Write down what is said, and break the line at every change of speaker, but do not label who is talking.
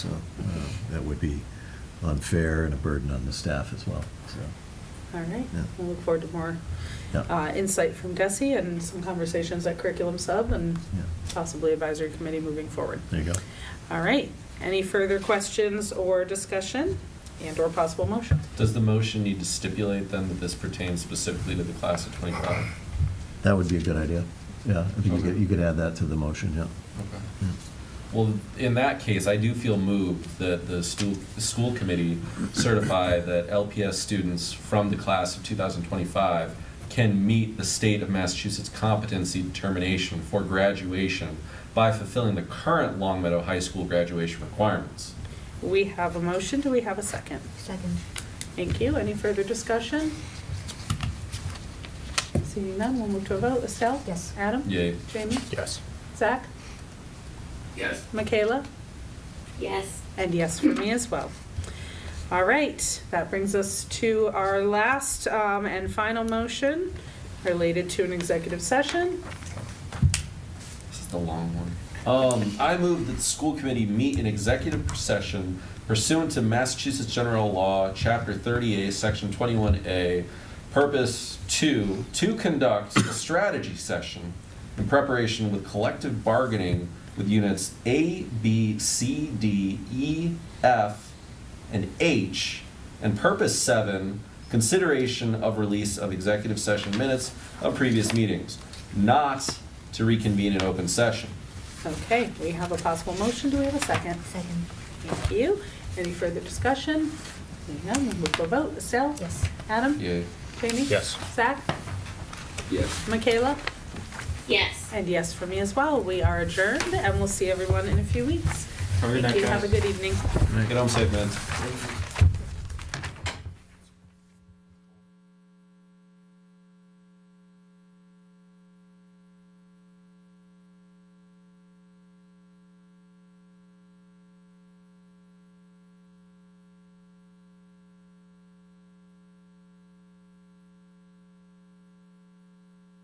So uh, that would be unfair and a burden on the staff as well, so.
All right,
Yeah.
I look forward to more
yeah.
uh, insight from Desi and some conversations at Curriculum Sub and
Yeah.
possibly Advisory Committee moving forward.
There you go.
All right, any further questions or discussion and/or possible motion?
Does the motion need to stipulate then that this pertains specifically to the class of 25?
That would be a good idea. Yeah, I think you could, you could add that to the motion, yeah. Yeah.
Well, in that case, I do feel moved that the stu- the school committee certify that LPS students from the class of 2025 can meet the state of Massachusetts competency determination for graduation by fulfilling the current Long Meadow High School graduation requirements.
We have a motion, do we have a second?
Second.
Thank you, any further discussion? Seeing none, we'll move to a vote. Estelle?
Yes.
Adam?
Yay.
Jamie?
Yes.
Zach?
Yes.
Michaela?
Yes.
And yes for me as well. All right, that brings us to our last um, and final motion related to an executive session.
This is the long one. Um, I move that the school committee meet in executive session pursuant to Massachusetts General Law, Chapter 30A, Section 21A, Purpose 2, to conduct a strategy session in preparation with collective bargaining with units A, B, C, D, E, F, and H, and purpose seven, consideration of release of executive session minutes of previous meetings, not to reconvene in open session.
Okay, we have a possible motion. Do we have a second?
Second.
Thank you. Any further discussion? Seeing none, we'll move to a vote. Estelle?
Yes.
Adam?
Yay.
Jamie?
Yes.
Zach?
Yes.
Michaela?
Yes.
And yes for me as well. We are adjourned and we'll see everyone in a few weeks.
Have a good
Thank
night,
you. Have a
guys.
good evening.
Get home safe, man.